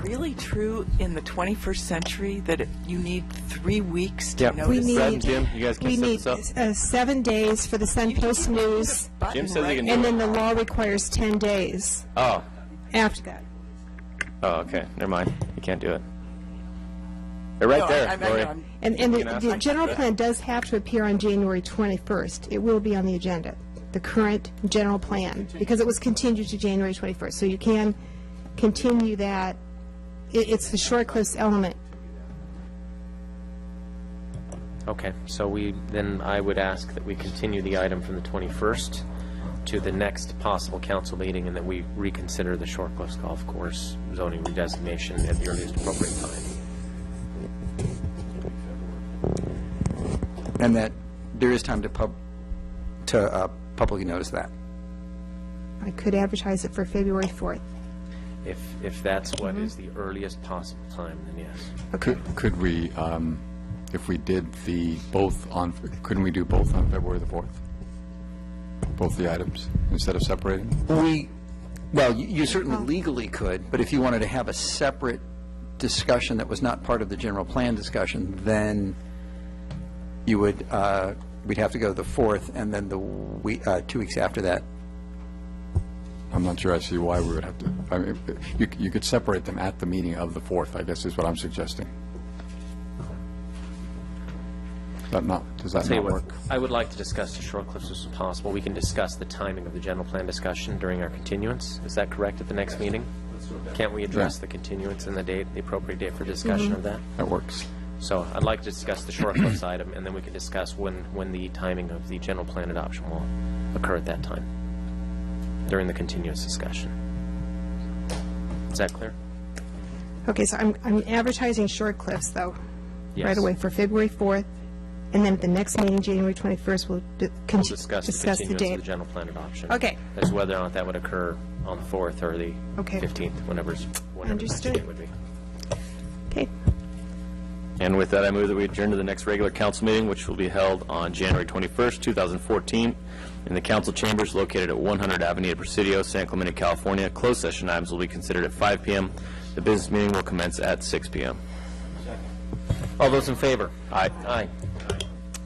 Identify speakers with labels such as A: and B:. A: really true in the 21st century that it- you need three weeks to
B: Yep.
A: notice?
C: We
B: Fred
C: need,
B: and Jim, you guys can
C: we
B: set
C: need
B: this up.
C: uh, seven days for the Sun Post News,
B: Jim says he can do
C: and
B: it.
C: then the law requires 10 days
B: Oh,
C: after that.
B: oh, okay, never mind. You can't do it. They're right
A: No, I-
B: there,
A: I'm- I'm-
B: Lori.
A: I'm-
C: And, and
B: You can
C: the,
B: ask-
C: the general plan does have to appear on January 21st. It will be on the agenda, the current general plan, because it was continued to January 21st. So you can continue that. It, it's the short cliffs element.
D: Okay, so we, then I would ask that we continue the item from the 21st to the next possible council meeting, and that we reconsider the Short Cliffs Golf Course zoning redesignation at the earliest appropriate time.
E: And that there is time to pub, to uh, publicly notice that.
C: I could advertise it for February 4th.
D: If, if that's what
A: Mm-hmm.
D: is the earliest possible time, then yes.
F: Could, could we, um, if we did the, both on, couldn't we do both on February the 4th? Both the items, instead of separating?
E: We, well, you- you certainly legally could, but if you wanted to have a separate discussion that was not part of the general plan discussion, then you would, uh, we'd have to go the 4th, and then the, we- uh, two weeks after that.
F: I'm not sure I see why we would have to, I mean, you, you could separate them at the meeting of the 4th, I guess is what I'm suggesting. Does that not, does that
D: Tell you
F: not
D: what,
F: work?
D: I would like to discuss the Short Cliffs as possible. We can discuss the timing of the general plan discussion during our continuance. Is that correct at the next meeting? Can't we address
F: Yeah. Mm-hmm.
D: the continuance and the date, the appropriate date for discussion of that?
F: That works.
D: So I'd like to discuss the short cliffs item, and then we can discuss when, when the timing of the general plan adoption will occur at that time, during the continuous discussion. Is that clear?
C: Okay, so I'm, I'm advertising short cliffs, though. Right
D: Yes.
C: away for February 4th, and then at the next meeting, January 21st, we'll d- con-
D: We'll discuss the
C: discuss the
D: continuance of
C: date.
D: the general plan adoption.
C: Okay.
D: As whether or not that would occur on the 4th or the
C: Okay.
D: 15th, whenever's, whenever the next
C: Understood.
D: date would be.
C: Okay,
B: And with that, I move that we adjourn to the next regular council meeting, which will be held on January 21st, 2014, in the council chambers located at 100 Avenida Presidio, San Clemente, California. Closed session items will be considered at 5 p.m. The business meeting will commence at 6 p.m. All those in favor? Aye. Aye.